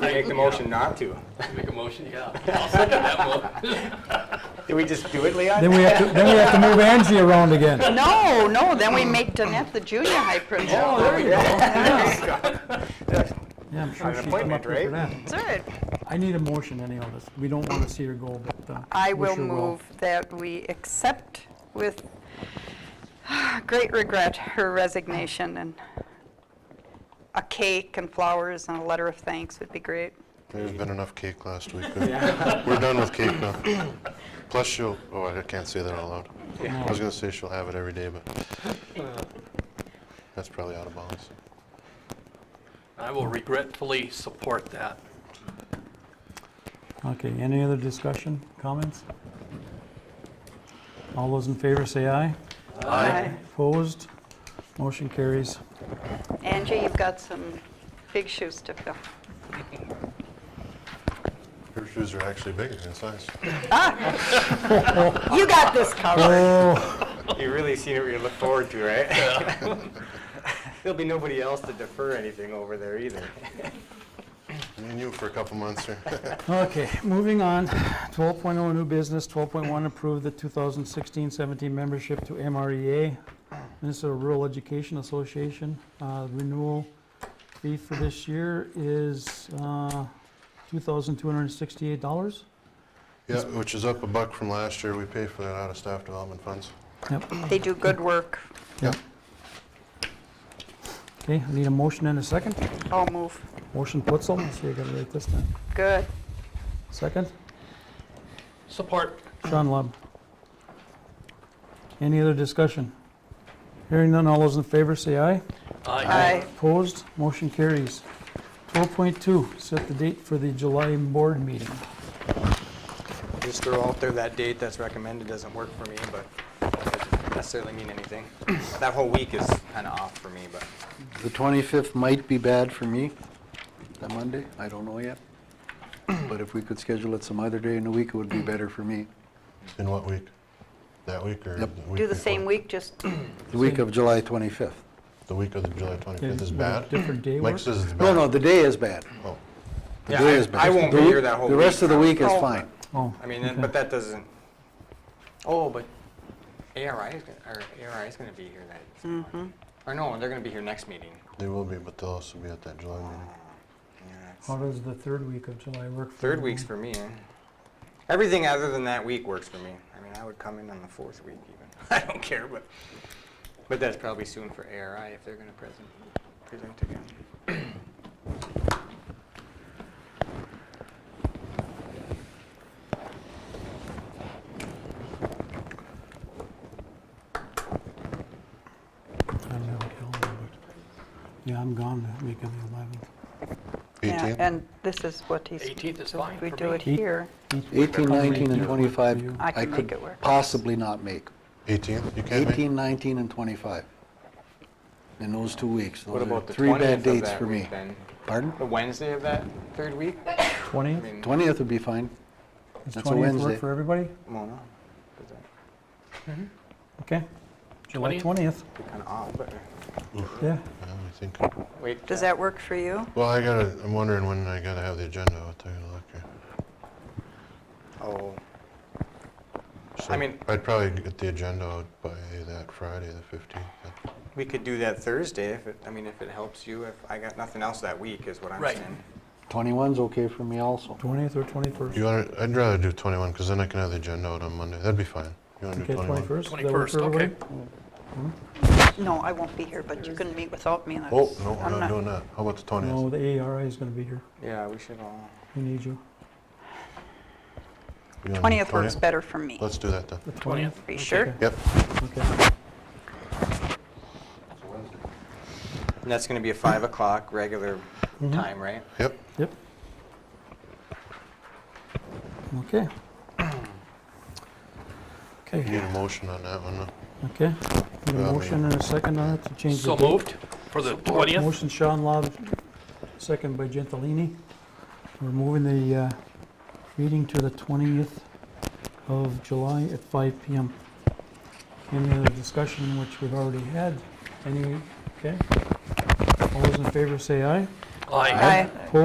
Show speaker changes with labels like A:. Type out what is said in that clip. A: make the motion not to.
B: Make a motion, yeah. I'll second that motion.
A: Did we just do it, Leon?
C: Then we have to, then we have to move Angie around again.
D: No, no, then we make Danette the junior high principal.
A: Oh, there you
C: Yeah, I'm sure
A: An
C: she'd come
A: appointment,
C: up with that.
A: right?
D: Good.
C: I need a motion anyhow, this, we don't want to see her go, but. uh,
D: I
C: we
D: will
C: sure
D: move that we accept with great regret her resignation and a cake and flowers and a letter of thanks would be great.
E: There's been enough cake last week. uh, We're done with cake now. Plus she'll, oh, I can't say that out loud. I was gonna say she'll have it every day, but that's probably out of bounds.
B: I will regretfully support that.
C: Okay, any other discussion, comments? All those in favor say aye.
D: Aye.
C: Opposed? Motion carries.
D: Angie, you've got some big shoes to fill.
E: Her shoes are actually bigger in size.
D: Ah! You got this covered.
C: Oh,
A: You really seen what you look forward to, right? There'll be nobody else to defer anything over there either.
E: Me and you for a couple months here.
C: okay, moving on. 12.0 new business, 12.1 approve the 2016-17 membership to E MREA, Minnesota Rural Education Association. Uh, Renewal fee for this year is uh, $2,268.
E: Yeah, which is up a buck from last year. We pay for that out of staff development funds.
C: Yep.
D: They do good work.
C: Yep. Okay, I need a motion and a second.
D: I'll move.
C: Motion Putzel, let's see, I gotta write this down.
D: Good.
C: Second,
B: Support.
C: Sean Lub. Any other discussion? Hearing none, all those in favor say aye.
D: Aye.
C: Opposed, motion carries. 12.2, set the date for the July board meeting.
A: Just throw out there that date that's recommended doesn't work for me, but that doesn't necessarily mean anything. That whole week is kind of off for me, but
F: The 25th might be bad for me, that Monday, I don't know yet. But if we could schedule it some other day in the week, it would be better for me.
E: In what week? That week or?
F: Yep.
E: the week
D: Do the
E: before?
D: same week, just,
F: The week of July 25th.
E: The week of the July 25th is
C: Would a
E: bad?
C: Different day
E: Mike
C: work?
E: says it's bad.
F: No, no, the day is bad.
E: Oh,
F: The
A: Yeah,
F: day
A: I-
F: is bad.
A: I won't
F: The
A: be
F: week-
A: here that whole
F: The rest
A: week.
F: of the week is
D: Oh.
F: fine.
C: Oh,
A: I mean, and-
C: okay.
A: but that doesn't, oh, but ARI is, gonna- or ARI is going to be here that, or no, they're going to be here next meeting.
E: they will be, but they'll also be at that July
F: Oh,
E: meeting.
A: Yeah, it's-
C: How does the third week of July work? for
A: Third
C: everyone?
A: week's for me. eh? Everything other than that week works for me. I mean, I would come in on the fourth week even. I don't care, but, but that's probably soon for ARI if they're gonna present, present again.
C: I don't have a calendar, but- Yeah, I'm gone that week of the
D: yeah,
E: 18th?
D: and this is what he's,
B: 18th is
D: so
B: fine
D: if we
B: for
D: do
B: me.
D: it here.
C: 11th.
F: 18, 19, and
C: Yeah.
F: 25,
D: I can
F: I
D: make
F: could
D: it work.
F: possibly not make.
E: 18th? You can't make?
F: 18, 19, and 25. In those two weeks,
A: What
F: those are
A: about the
F: three bad
A: twentieth of
F: dates
A: that
F: for me.
A: week then?
F: Pardon?
A: The Wednesday of that third week? I
C: 20th?
A: mean,
F: 20th would be fine.
C: Does
F: That's a
C: 20th
F: Wednesday.
C: work for everybody?
A: well, no, 'cause that'd
C: Okay. July
B: 20th?
C: 20th,
A: be kinda odd, but,
C: yeah.
E: Yeah, I think.
A: wait.
D: Does
A: uh,
D: that work for you?
E: Well, I gotta, I'm wondering when I gotta have the agenda out there to look at.
A: Oh,
E: So
A: I mean-
E: I'd probably get the agenda out by that Friday, the 15th.
A: we could do that Thursday if it, I mean, if it helps you, if I got nothing else that week is what I'm
B: Right.
A: saying.
F: 21's okay for me also.
C: 20th or 21st?
E: You wanna, I'd rather do 21, because then I can have the agenda out on Monday. That'd be fine. You wanna do
C: Okay,
E: 21?
C: 21st? Does that work
B: 21st,
C: for everybody?
D: No, I won't be here, but you can meet without me. and
E: Oh,
D: that's-
E: no,
D: I'm
E: we're not doing that. How about the
C: No,
E: 20th?
C: the ARI is going to be here.
A: Yeah, we should all,
C: We need you.
E: You wanna do
D: 20th works
E: 20th?
D: better for me.
E: Let's do that then.
C: The
B: 20th.
D: Are you sure?
E: Yep.
C: Okay.
A: and that's gonna be a five o'clock regular
C: Mhm.
A: time, right?
E: Yep.
C: Yep. Okay.
E: You need
C: Okay,
E: a motion on that one.
C: okay. Need a
E: Um,
C: motion and a second on it to change the
B: So
C: date.
B: moved for the 20th.
C: Motion Sean Lob, second by Gentilini. We're moving the uh, meeting to the 20th of July at 5 PM. Any other discussion, which we've already had? Any, okay? All those in favor say aye.
B: Aye.
D: Aye.
C: Opposed?